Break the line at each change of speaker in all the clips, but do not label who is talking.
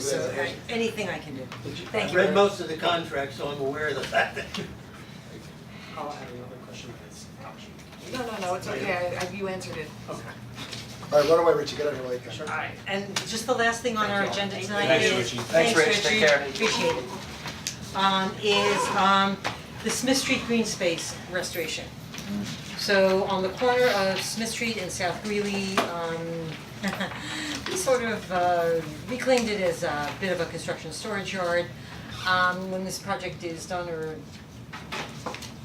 So I, anything I can do, thank
I
you.
read most of the contract, so I'm aware of the fact that.
I'll add another question if it's optional.
No, no, no, it's okay, I, I- you answered it.
Okay.
Alright, run away, Richie, get out of here late.
Alright, and just the last thing on our agenda tonight
Thanks,
is,
Richie.
thanks
Thanks, Rich.
Richie,
Take care.
appreciate it. Um, is, um, the Smith Street Green Space restoration. So on the corner of Smith Street and South Greeley, um, we sort of, uh, reclaimed it as a bit of a construction storage yard. Um, when this project is done or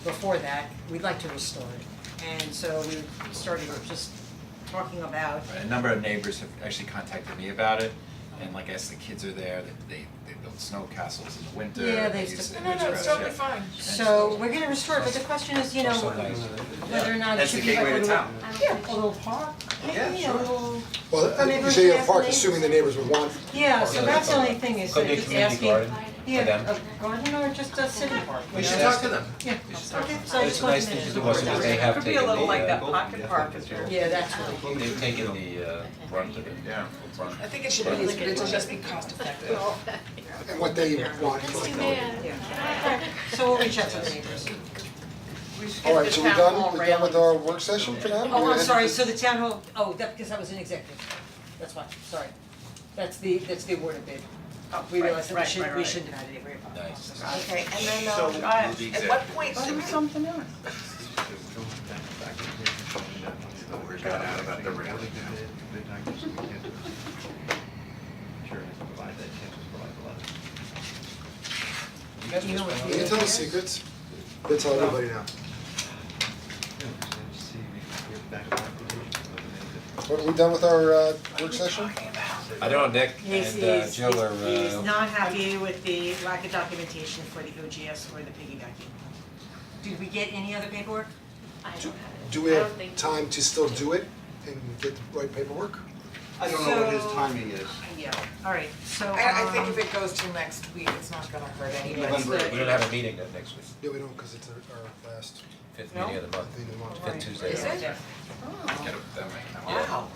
before that, we'd like to restore it. And so we started just talking about
Right, a number of neighbors have actually contacted me about it, and like I said, the kids are there, they- they, they build snow castles in the winter,
Yeah, they
they
used
use
to-
it
No, no, no, it's totally
as a-
fine.
So we're gonna restore it, but the question is, you know, whether or not it
That's the
should be like a
gateway to
little,
town.
yeah, a little park,
Yeah,
maybe a
sure.
little,
Well, you say you have park, assuming the neighbors would want.
yeah, so
parking.
that's the only thing is
Could
that
be a
it's
community
asking,
garden
yeah,
them.
a garden or just a city park, you
We
know?
should talk to them.
Yeah, okay, so I
It's
just
a
wanted
nice
to
thing
mention
to do
the
also,
board
because
that.
they have
Could be a
taken
little
the,
like that
uh,
pocket park is very.
Yeah, that's really cool.
they've taken the, uh, brunt of it. Yeah.
I think it should be, but it'll just be cost effective.
And what they want.
So we'll reach out to the neighbors.
We should
Alright,
get
so
the
we're
town
done,
hall
we're done with
railings.
our work session for now?
Oh, I'm sorry, so the town hall, oh, that, because that was an executive, that's why, sorry, that's the, that's the award of bid.
Oh,
We
right,
realized that we
right,
should,
right,
we
right.
shouldn't have had it, right?
Nice.
Okay, and then,
So,
um,
uh,
the
at what
executive.
point should we?
something else.
We're gonna add about the rail.
You guys
You know
just
what
went
Can you tell the secrets? They tell everybody now. What, we done with our, uh, work session?
I know Nick
He's
and uh,
he's
Jill are,
he's
uh,
not happy with the lack of documentation for the OGS or the piggybacking. Did we get any other paperwork?
Do we have time to still do it and get the right paperwork?
I don't know what his
So-
timing is.
Yeah. Alright, so
I, I think
um,
if it goes till next week, it's not gonna hurt anybody.
November.
we don't have a meeting that next week,
Yeah, we don't, cause it's our, our last
fifth meeting of the month,
thing in March.
Right.
fifth Tuesday.
Is it?
Get up that way.
Wow,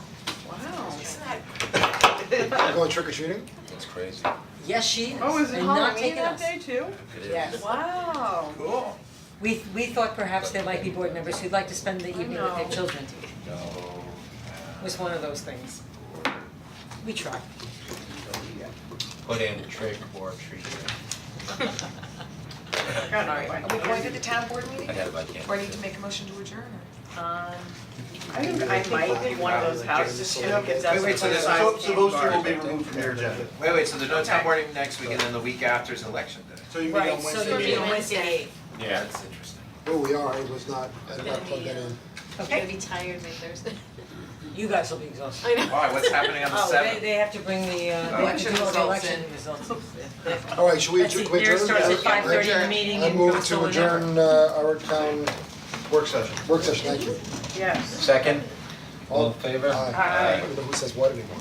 wow. Isn't that
We're Going trick or treating?
It's crazy,
Yes, she is,
Oh, is it
and not
Halloween
taking
that
us.
day too?
it is.
Yes,
Wow.
Cool.
we we thought perhaps there might be board members who'd like to spend the evening with their
know.
children,
No,
was one of those things. We tried.
Put in trick or treat,
Are we going to the town board meeting?
I got it by camera.
Or need to make a motion to adjourn
Um, I think I might be one of those houses, you know, gets
Wait, wait, so there's-
So, so those two will be removed from your agenda.
wait, wait, so there's no town
Okay.
board meeting next week, and then the week after is election day?
So you meet
Right,
on
so
Wednesday?
there'll be a
evening?
Wednesday.
Yeah.
That's interesting.
Oh, we are, it was not, I did not plug that in.
Okay.
I'm gonna be tired by Thursday.
You guys will be exhausted.
I know.
All right, what's happening on the
Oh, they
seventh?
they have to bring the uh, they have to
Election
do all the
results
election
in.
results.
Alright, should we,
Let's
adjourn-
see,
can we
here
adjourn?
starts
Yeah,
at five
right?
thirty, the meeting
I
in
move to
Barcelona.
adjourn, uh, our town
Work session.
work session, thank you.
Yes.
Second, all in favor?
Aye. I don't know who says what anymore.